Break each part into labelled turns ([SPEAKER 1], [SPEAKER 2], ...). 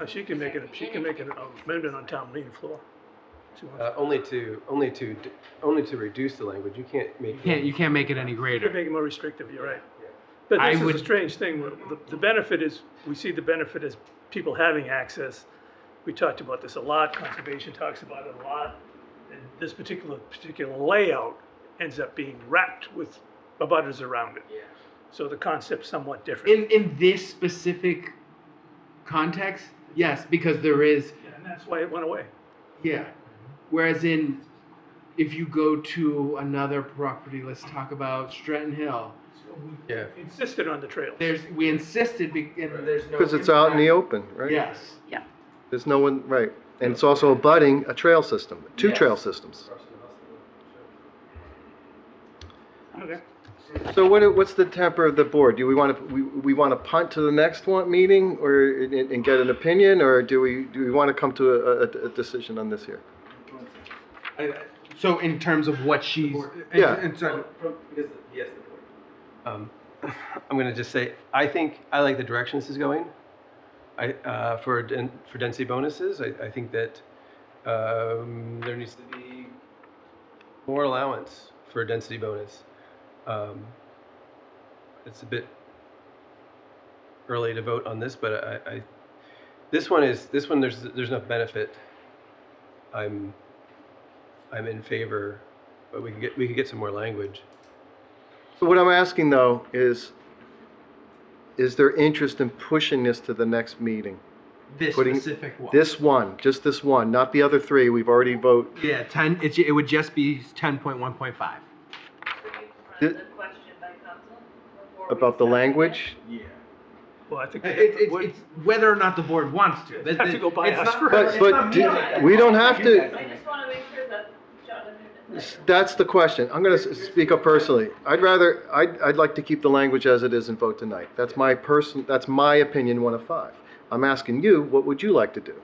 [SPEAKER 1] Uh, She can make it, um, she can make an amendment on town meeting floor. She wants-
[SPEAKER 2] Uh, only to, only to, d- only to reduce the language. You can't make.
[SPEAKER 3] You can't, you can't make it any
[SPEAKER 1] You could
[SPEAKER 3] greater.
[SPEAKER 1] make it more restrictive, you're right. But
[SPEAKER 3] I
[SPEAKER 1] this is a
[SPEAKER 3] would-
[SPEAKER 1] strange thing, where the, the benefit is, we see the benefit as people having access. We talked about this a lot, conservation talks about it a lot. And this particular, particular layout ends up being wrapped with abutters around it. So the concept's somewhat different.
[SPEAKER 3] In, in this specific context, yes, because there is,
[SPEAKER 1] And that's why it went away.
[SPEAKER 3] yeah. Whereas in, if you go to another property, let's talk about Stratton Hill.
[SPEAKER 2] Yeah,
[SPEAKER 1] Insisted on the trails.
[SPEAKER 3] There's, we insisted, be- and there's no.
[SPEAKER 4] Because it's out in the
[SPEAKER 3] impact.
[SPEAKER 4] open, right?
[SPEAKER 3] Yes.
[SPEAKER 4] There's no one, right. And it's also abutting a trail system, two
[SPEAKER 3] Yes.
[SPEAKER 4] trail systems.
[SPEAKER 1] Okay.
[SPEAKER 4] So what, do- what's the temper of the board? Do we want to, we, we want to punt to the next one, meeting or, and, and get an opinion? Or do we, do we want to come to a, a, a decision on this here?
[SPEAKER 3] So in terms of what she's.
[SPEAKER 4] Yeah.
[SPEAKER 3] in terms-
[SPEAKER 2] um, I'm gonna just say, I think, I like the direction this is going. I, uh, for, den- for density bonuses, I, I think that, um, there needs to be more allowance for a density bonus. Um, It's a bit early to vote on this, but I, I, this one is, this one, there's, there's enough benefit. I'm, I'm in favor, but we can get, we could get some more language.
[SPEAKER 4] So what I'm asking though is, is there interest in pushing this to the next meeting?
[SPEAKER 3] This
[SPEAKER 4] Putting-
[SPEAKER 3] specific one.
[SPEAKER 4] This one, just this one, not the other three. We've already vote,
[SPEAKER 3] Yeah, ten, it, it would just be ten point one point five.
[SPEAKER 5] Could you
[SPEAKER 4] Did-
[SPEAKER 5] run the question by council? before we
[SPEAKER 4] about the
[SPEAKER 5] decide?
[SPEAKER 4] language.
[SPEAKER 1] Well, I think.
[SPEAKER 3] Uh, It, it's, it's whether or not the board wants to. That-
[SPEAKER 1] Have to go by
[SPEAKER 3] it's
[SPEAKER 1] us
[SPEAKER 3] not-
[SPEAKER 1] first.
[SPEAKER 4] But,
[SPEAKER 3] it's
[SPEAKER 4] but
[SPEAKER 3] not
[SPEAKER 4] do-
[SPEAKER 3] me that-
[SPEAKER 4] we don't have to,
[SPEAKER 5] I just want to make sure that Jonathan.
[SPEAKER 4] That's the question. I'm going to speak up personally. I'd rather, I'd, I'd like to keep the language as it is and vote tonight. That's my person, that's my opinion, one of five. I'm asking you, what would you like to do?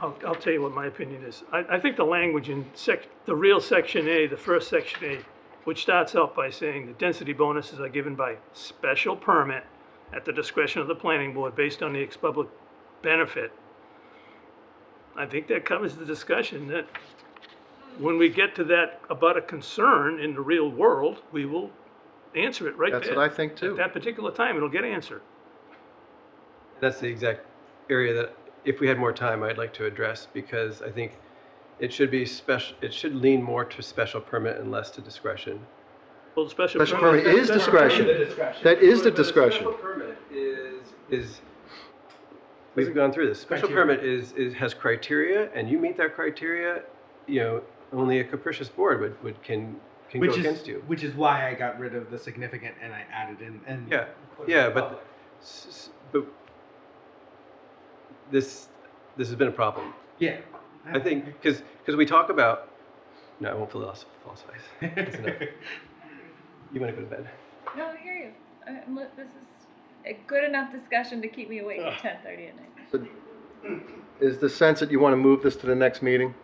[SPEAKER 1] I'll, I'll tell you what my opinion is. I, I think the language in sec, the real section A, the first section A, which starts out by saying the density bonuses are given by special permit at the discretion of the planning board based on the ex-public benefit. I think that covers the discussion that when we get to that about a concern in the real world, we will answer it right there.
[SPEAKER 4] That's what I think too.
[SPEAKER 1] At that particular time, it'll get answered.
[SPEAKER 2] That's the exact area that, if we had more time, I'd like to address because I think it should be special, it should lean more to special permit and less to discretion.
[SPEAKER 1] Well, the special permit.
[SPEAKER 4] Special permit is discretion. That is the discretion.
[SPEAKER 2] Special permit is, is, we've gone through this. Special
[SPEAKER 3] Criteria.
[SPEAKER 2] permit is, is, has criteria and you meet that criteria, you know, only a capricious board would, would, can, can go
[SPEAKER 3] Which is,
[SPEAKER 2] against you.
[SPEAKER 3] which is why I got rid of the significant and I added in and.
[SPEAKER 2] Yeah, yeah, but, s- s- but this, this has been a problem.
[SPEAKER 3] Yeah.
[SPEAKER 2] I think because because we talk about no, I won't philosoph- philosophize. That's enough. you want to go to bed?
[SPEAKER 5] No, I hear you. I- I'm li- This is a good enough discussion to keep me awake at ten thirty at night.
[SPEAKER 4] Is the sense that you want to move this to the next meeting?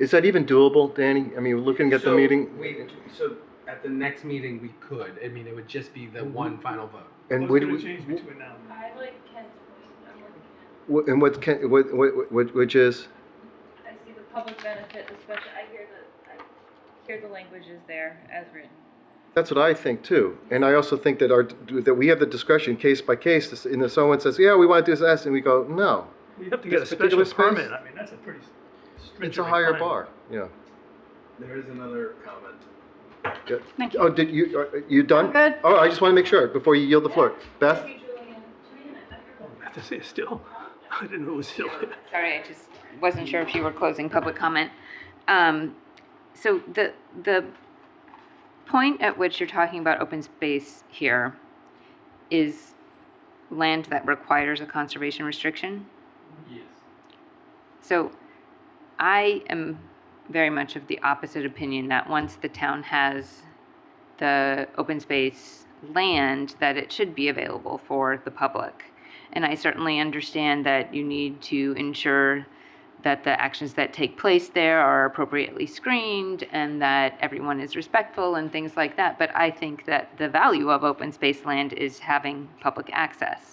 [SPEAKER 4] Is that even doable, Danny? I mean, looking at the
[SPEAKER 3] So,
[SPEAKER 4] meeting
[SPEAKER 3] We, so at the next meeting, we could, I mean, it would just be
[SPEAKER 1] Mm-hmm.
[SPEAKER 3] the one final vote.
[SPEAKER 4] and
[SPEAKER 1] What's
[SPEAKER 4] what,
[SPEAKER 1] gonna change between now and then?
[SPEAKER 5] I like Ken's point. I'm with Ken.
[SPEAKER 4] what- and what can, what, what, what- which is,
[SPEAKER 5] I see the public benefit, especially, I hear the, I hear the language is there as written.
[SPEAKER 4] That's what I think too, and I also think that our that we have the discretion case by case. to s- And if someone says, "Yeah, we want to do this," and we go, "No,
[SPEAKER 1] You have to get a
[SPEAKER 4] This particular
[SPEAKER 1] special permit,
[SPEAKER 4] space?
[SPEAKER 1] I mean, that's a pretty stringent.
[SPEAKER 4] it's a higher
[SPEAKER 1] requirement.
[SPEAKER 4] bar." Yeah.
[SPEAKER 6] There is another comment.
[SPEAKER 7] Thank you.
[SPEAKER 4] Oh, did you are are you done?
[SPEAKER 7] I'm good.
[SPEAKER 4] Oh, I just want to make sure before you yield the floor, Beth.
[SPEAKER 5] Thank you, Julian. Julian, I thought you were-
[SPEAKER 1] I have to say it still, I didn't know it was still there.
[SPEAKER 7] Sorry, I just wasn't sure if you were closing public comment. Um, So the, the point at which you're talking about open space here is land that requires a conservation restriction? Yes. So I am very much of the opposite opinion that once the town has the open space land, that it should be available for the public. And I certainly understand that you need to ensure that the actions that take place there are appropriately screened and that everyone is respectful and things like that. But I think that the value of open space land is having public access.